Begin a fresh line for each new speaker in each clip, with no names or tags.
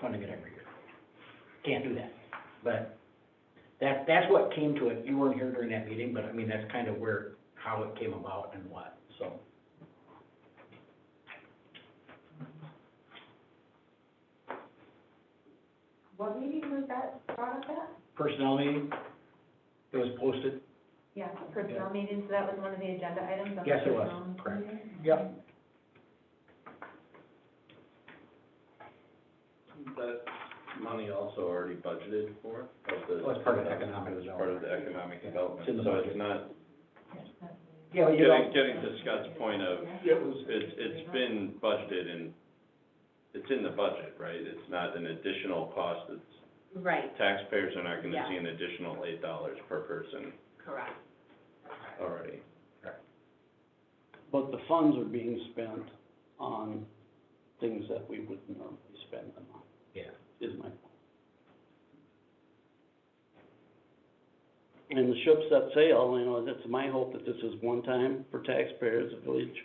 funding it every year. Can't do that, but that, that's what came to it, you weren't here during that meeting, but I mean, that's kind of where, how it came about and what, so.
What meeting was that, brought up at?
Personnel meeting, it was posted,
Yeah, personnel meeting, so that was one of the agenda items on the
Yes, it was,
personnel
correct.
meeting?
Yep.
That money also already budgeted for? of the-
Well, it's part of economic
It's part of the
development.
economic
Yeah.
development,
It's in the
so
budget.
it's not,
Yeah, you
getting,
know,
getting to Scott's point of,
it was,
it's, it's been budgeted and it's in the budget, right? It's not an additional cost, it's,
Right,
taxpayers are not gonna
Yeah.
see an additional eight dollars per person
correct.
already.
But the funds are being spent on things that we would normally spend them on,
yeah.
is my point. And the ship set sail, you know, it's my hope that this is one time for taxpayers, the village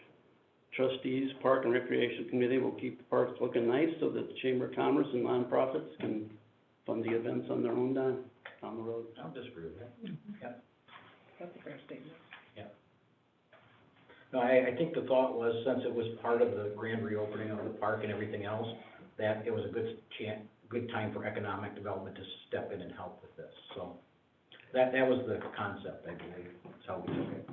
trustees, park and recreation committee will keep the parks looking nice so that the chamber of commerce and nonprofits can fund the events on their own down, down the road.
I don't disagree with that. Yep. That's a fair statement. Yeah. No, I, I think the thought was, since it was part of the grand reopening of the park and everything else, that it was a good chan, good time for economic development to step in and help with this, so. That, that was the concept, I believe, that's how we took it,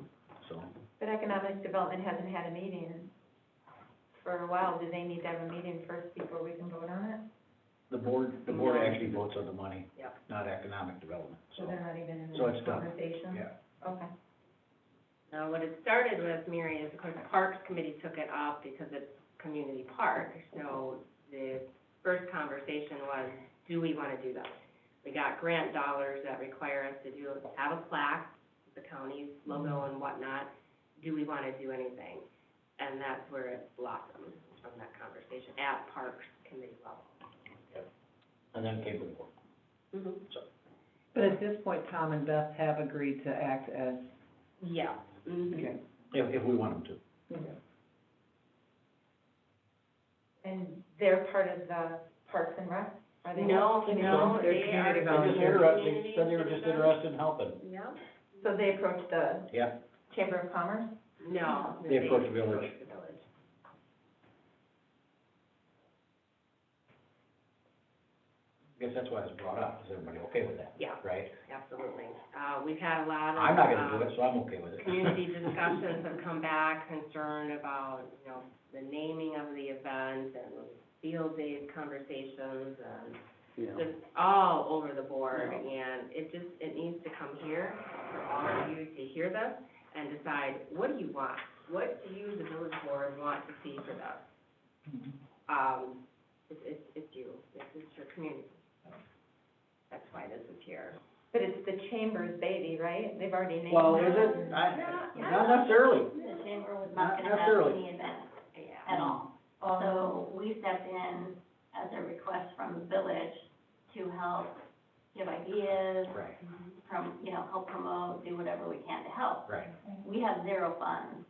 so.
But economic development hasn't had a meeting for a while, do they need to have a meeting first before we can vote on it?
The board, the board actually votes on the money.
Yep.
Not economic development,
So
so,
they're not even in
So
the
it's done.
conversation?
yeah.
Okay,
Now, what it started with, Mary, is of course Parks Committee took it up because it's community park. So the first conversation was, do we want to do this? We got grant dollars that require us to do, have a plaque, the county's logo and whatnot. Do we want to do anything? And that's where it blossomed from that conversation at Parks Committee level.
and then came the board.
But at this point, Tom and Beth have agreed to act as,
Yeah. mhm.
okay.
If, if we want them to.
and they're part of the Parks and Rec, are they?
No, no,
They're
they are.
community
They're just
volunteers.
interested, they said they were just interested in helping.
Yeah.
So they approached the
Yep.
Chamber of Commerce?
No.
They approach the village.
approach the village.
I guess that's why it's brought up, is everybody okay with that,
Yeah,
right?
absolutely. Uh, we've had a lot of.
I'm not gonna do
um,
it, so I'm okay with it.
Community discussions have come back concerned about, you know, the naming of the event and field days conversations and
Yeah.
just all over the board. And it just, it needs to come here for all of you to hear this and decide, what do you want? What do you, the village board, want to see for this? Um, it's, it's, it's you, this is your community. That's why this is here.
But it's the Chamber's baby, right? They've already named it.
Well, is it? I, not necessarily.
the chamber was
Not
not gonna have
necessarily.
any event
Yeah.
at all.
Oh,
So we stepped in as a request from the village to help give ideas,
Right,
from, you know, help promote, do whatever we can to help.
right.
We have zero funds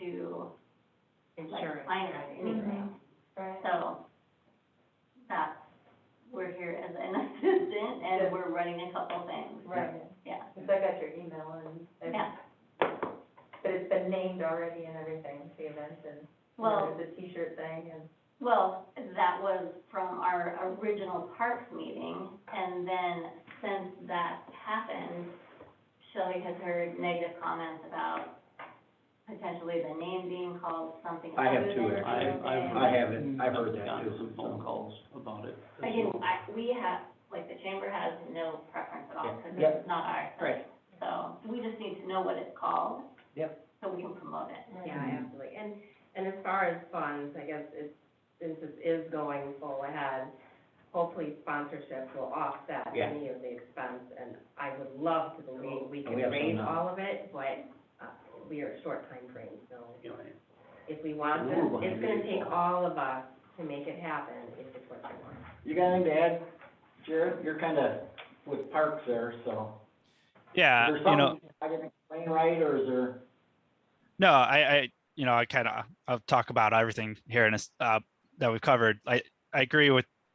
to like
Insurance. Mm-hmm.
finance anything.
right.
So that's, we're here as an assistant
Yeah.
and we're running a couple things,
Right,
yeah.
because I got your email and,
Yeah.
I- but it's been named already and everything, the event and, you know,
Well,
there's a T-shirt thing and.
Well, that was from our original parks meeting, and then since that happened, Shelley has heard negative comments about potentially the name being called something
I have
other
too.
than
I,
Thursday.
I've.
I have it. I've heard that
gotten
too,
some phone calls about it. as
Again,
well.
I, we have, like, the chamber has no preference at all, because
Yeah.
it's not ours.
Right.
So, we just need to know what it's called.
Yep.
So we can promote it.
Yeah, absolutely. And, and as far as funds, I guess it's, since this is going full ahead, hopefully sponsorships will offset
Yeah.
any of the expense. And I would love to believe we
And
can
we have some
raise
now.
all of it, but, uh, we are short timeframe, so
You know, I-
if we want
We're
this,
behind
it's gonna
the eight
take all of us to make it happen if it's what we want.
You got anything to add, Jared? You're kinda with parks there, so.
Yeah,
Is there
Uh, you know,
something I didn't explain right, or is there?
no, I, I, you know, I kind of, I'll talk about everything here in a, s- uh, that we've covered. I, I agree with